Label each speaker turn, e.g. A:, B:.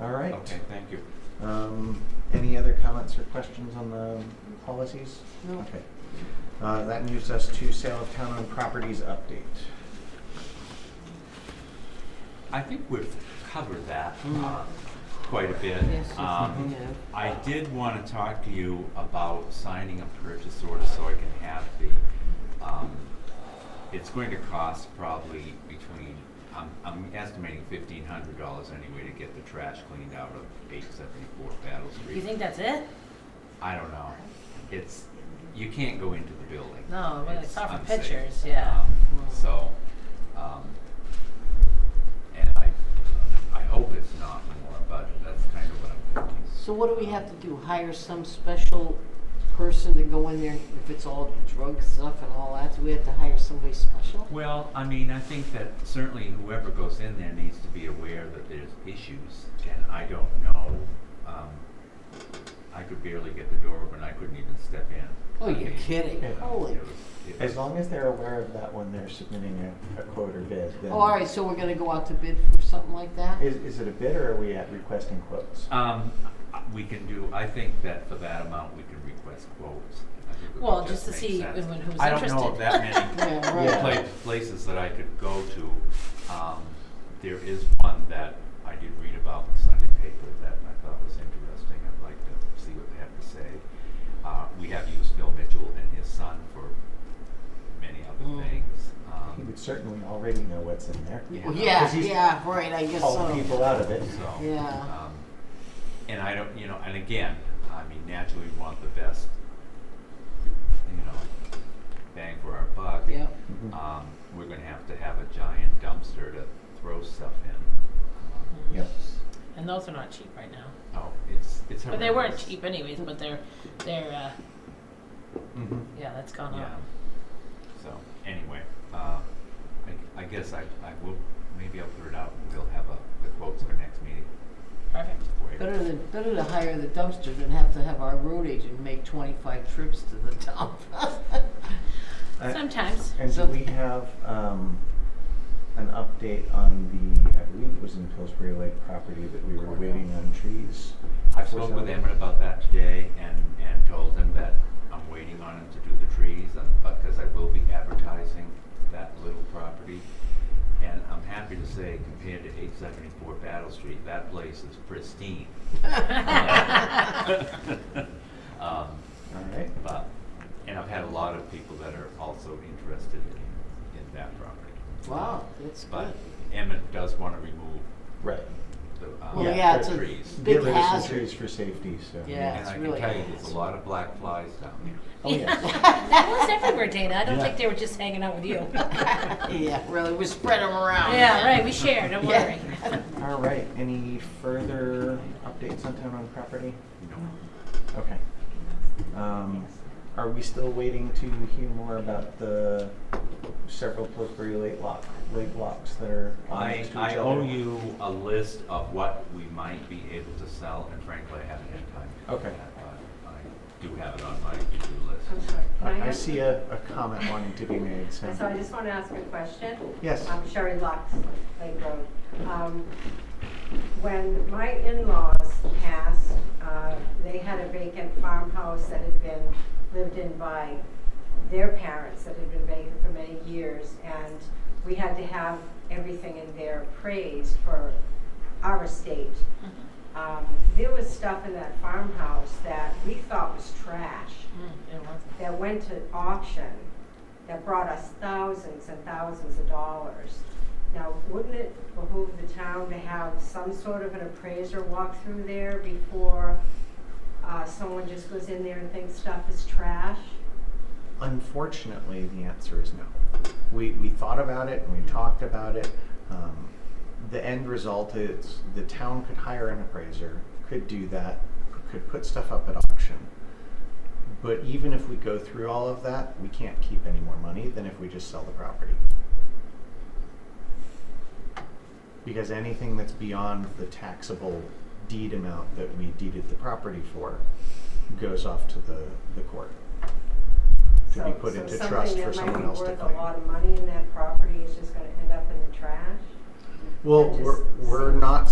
A: All right.
B: Okay, thank you.
A: Um, any other comments or questions on the policies?
C: No.
A: Okay. Uh, that moves us to sale of town-owned properties update.
B: I think we've covered that
C: Mm.
B: uh, quite a bit.
C: Yes, yes,
B: Um,
C: we have.
B: I did want to talk to you about signing a purchase order so I can have the, um, it's going to cost probably between, I'm, I'm estimating fifteen hundred dollars anyway to get the trash cleaned out of eight seventy-four Battle Street.
C: You think that's it?
B: I don't know. It's, you can't go into the building.
C: No, well, I
B: It's
C: saw from
B: unsafe.
C: pictures, yeah.
B: Um, So, um, and I, I hope it's not more, but that's kind of what I'm thinking.
D: So what do we have to do? Hire some special person to go in there if it's all drug stuff and all that? Do we have to hire somebody special?
B: Well, I mean, I think that certainly whoever goes in there needs to be aware that there's issues, and I don't know. Um, I could barely get the door open, I couldn't even step in.
D: Oh,
B: I
D: you're
B: mean,
D: kidding.
A: Yeah.
D: Holy.
B: It was, it
A: As
B: was-
A: long as they're aware of that when they're submitting a, a quote or bid, then.
D: Oh, all right, so we're gonna go out to bid for something like that?
A: Is, is it a bid or are we at requesting quotes?
B: Um, I- we can do, I think that for that amount, we can request quotes. I think it would
C: Well, just to
B: make
C: see
B: sense.
C: everyone who's
B: I don't know of
C: interested.
B: that many
D: Yeah,
A: Yeah.
D: right.
B: pla- places that I could go to. Um, there is one that I did read about in the Sunday paper that I thought was interesting. I'd like to see what they have to say. Uh, we have used Phil Mitchell and his son for many
D: Mm.
B: other things.
A: He would
B: Um,
A: certainly already know what's in there.
B: Yeah.
D: Well, Yeah,
A: 'Cause he's Oh,
D: yeah, right, I guess
A: Called
D: so.
A: people out of it.
B: so,
D: Yeah.
B: um, and I don't, you know, and again, I mean, naturally, we want the best, you know, bang for our buck.
D: Yeah.
A: Mhm.
D: uh,
B: Um, we're gonna have to have a giant dumpster to throw stuff in.
D: Mm-hmm.
A: Yep.
C: And those are not cheap right now.
B: Um, Oh, it's, it's horrendous.
C: But they weren't cheap anyways, but they're, they're, uh,
B: Mhm.
C: yeah, that's gone
B: Yeah.
C: up.
B: So, anyway, uh, I, I guess I, I will, maybe I'll put it out and we'll have a, the quotes for next meeting.
C: Perfect.
B: Wait.
D: Better to, better to hire the dumpster than have to have our road agent make twenty-five trips to the dump.
A: Uh,
C: Sometimes.
A: And do
D: So-
A: we have, um, an update on the, I believe it was in Pillsbury Lake property that we were waiting on trees?
B: I spoke with Emmett about that today and, and told him that I'm waiting on him to do the trees, and, but, cause I will be advertising that little property. And I'm happy to say compared to eight seventy-four Battle Street, that place is pristine. Um,
A: All right.
B: but, and I've had a lot of people that are also interested in, in that property.
D: Wow, that's good.
B: But Emmett does wanna remove
A: Right.
B: the,
D: Well,
B: um,
D: yeah,
A: the
D: it's a
B: trees.
D: big
A: Get rid of some
D: hazard.
A: trees for safety, so.
D: Yeah.
B: And
D: it's
B: I can
D: really
B: tell you,
D: bad.
B: there's a lot of black flies down there.
A: Oh, yes.
C: That was everywhere, Dana. I don't
A: Yeah.
C: think they were just hanging out with you.
D: Yeah, really, we spread them around.
C: Yeah, right, we share, don't worry.
D: Yeah.
A: All right, any further updates on town owned property?
B: You know,
A: Okay. Um, are we still waiting to hear more about the several Pillsbury Lake lock, Lake locks that are
D: Oh,
A: on
B: I,
A: next to each
B: I
A: other?
B: owe you a list of what we might be able to sell, and frankly, I haven't had time. to do
A: Okay.
B: that, but I do have it on my to-do
E: I'm
B: list.
E: sorry, can
A: I, I
E: ask-
A: see a, a comment wanting to be made, so.
E: So I just want to ask a question.
A: Yes.
E: I'm Sherry Lux, Lake Road. Um, When my in-laws passed, uh, they had a vacant farmhouse that had been lived in by their parents that had been vacant for many years. And we had to have everything in there appraised for our estate.
C: Mm-hmm.
E: Um, There was stuff in that farmhouse that we thought was trash
C: Mm, it wasn't.
E: that went to auction that brought us thousands and thousands of dollars. Now, wouldn't it behoove the town to have some sort of an appraiser walk through there before uh, someone just goes in there and thinks stuff is trash?
A: Unfortunately, the answer is no. We, we thought about it and we talked about it. Um, the end result is the town could hire an appraiser, could do that, could put stuff up at auction. But even if we go through all of that, we can't keep any more money than if we just sell the property. Because anything that's beyond the taxable deed amount that we deeded the property for goes off to the, the court. To be
E: So-
A: put into trust for someone else to
E: So something that might be
A: claim.
E: worth a lot of money in that property is just gonna end up in the trash?
A: Well,
E: That just
A: we're, we're
E: seems-
A: not